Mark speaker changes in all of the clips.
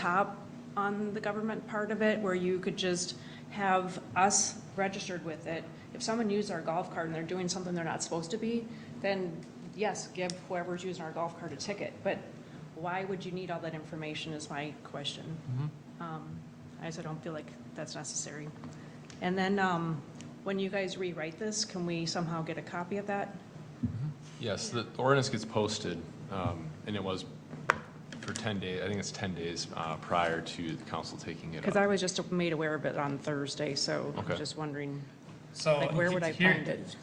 Speaker 1: top on the government part of it, where you could just have us registered with it. If someone used our golf cart and they're doing something they're not supposed to be, then yes, give whoever's using our golf cart a ticket. But why would you need all that information is my question. Um, I just don't feel like that's necessary. And then, um, when you guys rewrite this, can we somehow get a copy of that?
Speaker 2: Yes, the ordinance gets posted, um, and it was for 10 days, I think it's 10 days uh, prior to the council taking it
Speaker 1: Because
Speaker 2: up.
Speaker 1: I was just made aware of it on Thursday, so I'm
Speaker 2: Okay.
Speaker 1: just wondering,
Speaker 3: So.
Speaker 1: like, where would I
Speaker 3: Oh, here-
Speaker 1: find it?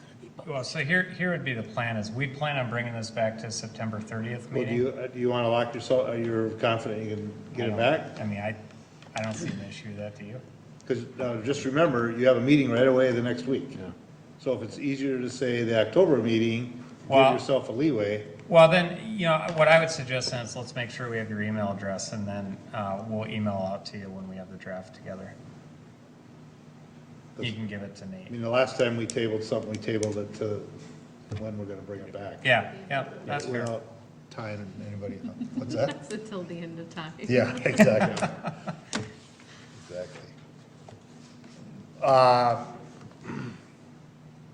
Speaker 3: Well, so here, here would be the plan is we plan on bringing this back to September 30th
Speaker 4: Well, do
Speaker 3: meeting.
Speaker 4: you, uh, do you want to lock yourself, are you confident you can get it
Speaker 3: I don't-
Speaker 4: back?
Speaker 3: I mean, I, I don't see an issue with that, do you?
Speaker 4: Because uh, just remember, you have a meeting right away the next week.
Speaker 2: Yeah.
Speaker 4: So if it's easier to say the October meeting, give
Speaker 3: Well-
Speaker 4: yourself a leeway.
Speaker 3: Well, then, you know, what I would suggest then is let's make sure we have your email address and then uh, we'll email out to you when we have the draft together. You can give it to
Speaker 4: I
Speaker 3: Nate.
Speaker 4: mean, the last time we tabled something, we tabled it to when we're going to bring it back.
Speaker 3: Yeah, yeah, that's fair.
Speaker 4: Without tying anybody up. What's that?
Speaker 5: It's until the end of time.
Speaker 4: Yeah, exactly. Exactly. Uh,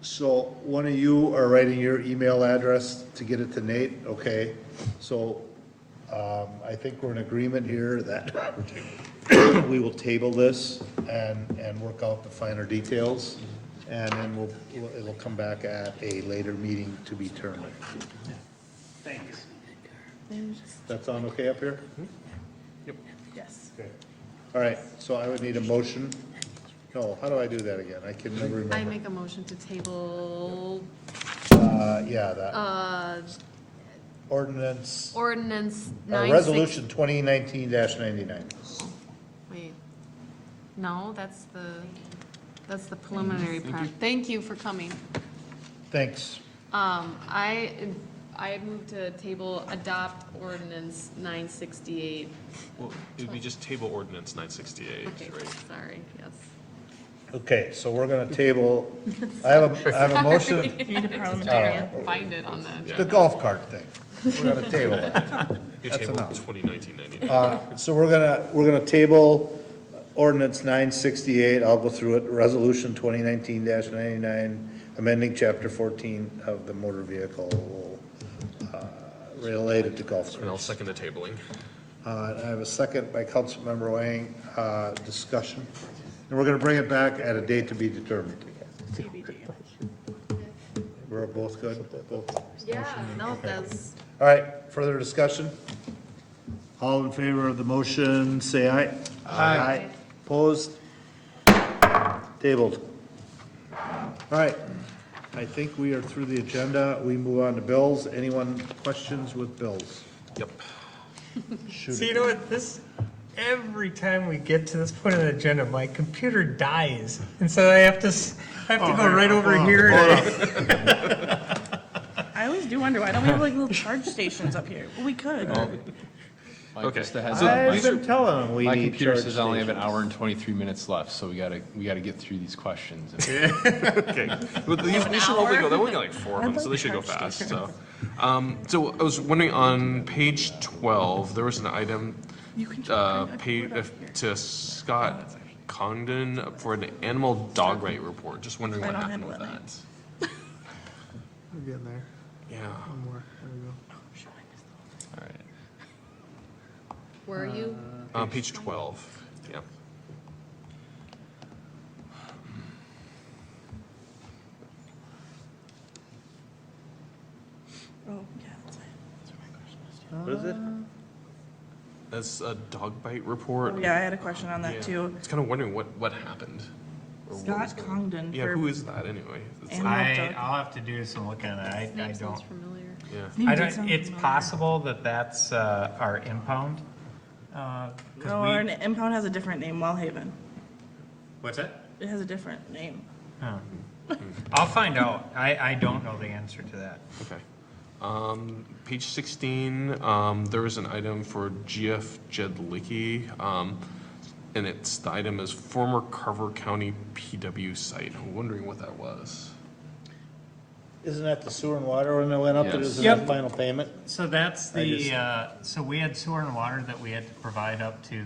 Speaker 4: So one of you are writing your email address to get it to Nate, okay? So um, I think we're in agreement here that we will table this and, and work out the finer details. And then we'll, we'll- it'll come back at a later meeting to be determined. That sound okay up here?
Speaker 5: Yes.
Speaker 4: Mm-hmm. Okay. All right, so I would need a motion. No, how do I do that again? I can never
Speaker 5: I
Speaker 4: remember.
Speaker 5: make a motion to table,
Speaker 4: Uh, yeah, that
Speaker 5: uh,
Speaker 4: ordinance, uh,
Speaker 5: ordinance nine six.
Speaker 4: resolution twenty nineteen ninety-nine.
Speaker 5: Wait, no, that's the, that's the preliminary part. Thank you for coming.
Speaker 4: Thanks.
Speaker 5: Um, I, I move to table adopt ordinance nine sixty-eight.
Speaker 2: Well, it would be just table ordinance 968,
Speaker 5: Okay,
Speaker 2: right?
Speaker 5: sorry, yes.
Speaker 4: Okay, so we're gonna table, I have a, I have a motion, Uh,
Speaker 5: Sorry. I can't Find it on the
Speaker 4: the
Speaker 5: agenda.
Speaker 4: golf cart thing. We're gonna table it.
Speaker 2: You
Speaker 4: That's
Speaker 2: tabled
Speaker 4: enough.
Speaker 2: 2019
Speaker 4: Uh, So we're gonna, we're gonna table ordinance nine sixty-eight, I'll go through it, resolution twenty nineteen ninety-nine, amending chapter fourteen of the motor vehicle, uh, related to golf
Speaker 2: And I'll
Speaker 4: course.
Speaker 2: second the tabling.
Speaker 4: Uh, and I have a second by Councilmember Wang, uh, discussion, and we're gonna bring it back at a date to be determined. We're both good, both, all
Speaker 5: Yeah, no, that's,
Speaker 4: right, further discussion? All in favor of the motion, say aye. Aye. Opposed? Tabled. All right, I think we are through the agenda, we move on to bills, anyone questions with bills?
Speaker 2: Yep.
Speaker 4: Shoot it.
Speaker 3: So you know what, this, every time we get to this point on the agenda, my computer dies, and so I have to, s- I
Speaker 2: Oh,
Speaker 3: have to go right over here. and-
Speaker 6: I always do wonder why don't we have like little charge stations up here? Well, we could.
Speaker 2: Okay.
Speaker 7: just a heads up,
Speaker 4: I've been telling them we
Speaker 2: My
Speaker 4: need
Speaker 2: computer
Speaker 4: charge
Speaker 2: says I only have an
Speaker 4: stations.
Speaker 2: hour and 23 minutes left, so we gotta, we gotta get through these questions. But these, these should probably go, they're only like four of them, so they should go fast, so. Um, so I was wondering, on page twelve, there was an item, uh, pay, to
Speaker 6: Oh,
Speaker 2: Scott Congdon for an animal dog right report, just wondering what
Speaker 6: Right on
Speaker 2: happened with
Speaker 6: hand,
Speaker 2: that.
Speaker 8: We're getting there.
Speaker 2: Yeah,
Speaker 8: One more. There we go.
Speaker 6: Oh,
Speaker 2: alright,
Speaker 5: where are you?
Speaker 2: uh, page twelve, yeah.
Speaker 6: Oh, yeah, that's fine.
Speaker 4: What is it?
Speaker 2: That's a dog bite report.
Speaker 6: Oh, Yeah, I had a question on
Speaker 2: Yeah.
Speaker 6: that too.
Speaker 2: It's kinda wondering what, what happened. or what was
Speaker 6: Scott
Speaker 2: going-
Speaker 6: Congdon
Speaker 2: Yeah, who
Speaker 6: for,
Speaker 2: is that anyway? It's
Speaker 6: Animal-
Speaker 2: like-
Speaker 3: I, I'll have to do some looking at it, I, I
Speaker 5: Name sounds
Speaker 3: don't.
Speaker 5: familiar.
Speaker 2: Yeah.
Speaker 6: name
Speaker 3: I
Speaker 6: did
Speaker 3: don't,
Speaker 6: sound
Speaker 3: it's
Speaker 6: familiar.
Speaker 3: possible that that's, uh, our impound. uh, 'cause
Speaker 6: No,
Speaker 3: we-
Speaker 6: our n- impound has a different name, Wellhaven.
Speaker 3: What's that?
Speaker 6: It has a different name.
Speaker 3: Oh. I'll find out, I, I don't know the answer to that.
Speaker 2: Okay. Um, page sixteen, um, there was an item for GF Jedlicki, um, and it's, the item is former Carver County PW site. I'm wondering what that was.
Speaker 4: Isn't that the sewer and water one that went up, that
Speaker 2: Yes.
Speaker 4: isn't that
Speaker 3: Yep.
Speaker 4: final payment?
Speaker 3: So that's
Speaker 4: I
Speaker 3: the,
Speaker 4: just-
Speaker 3: uh, so we had sewer and water that we had to provide up to the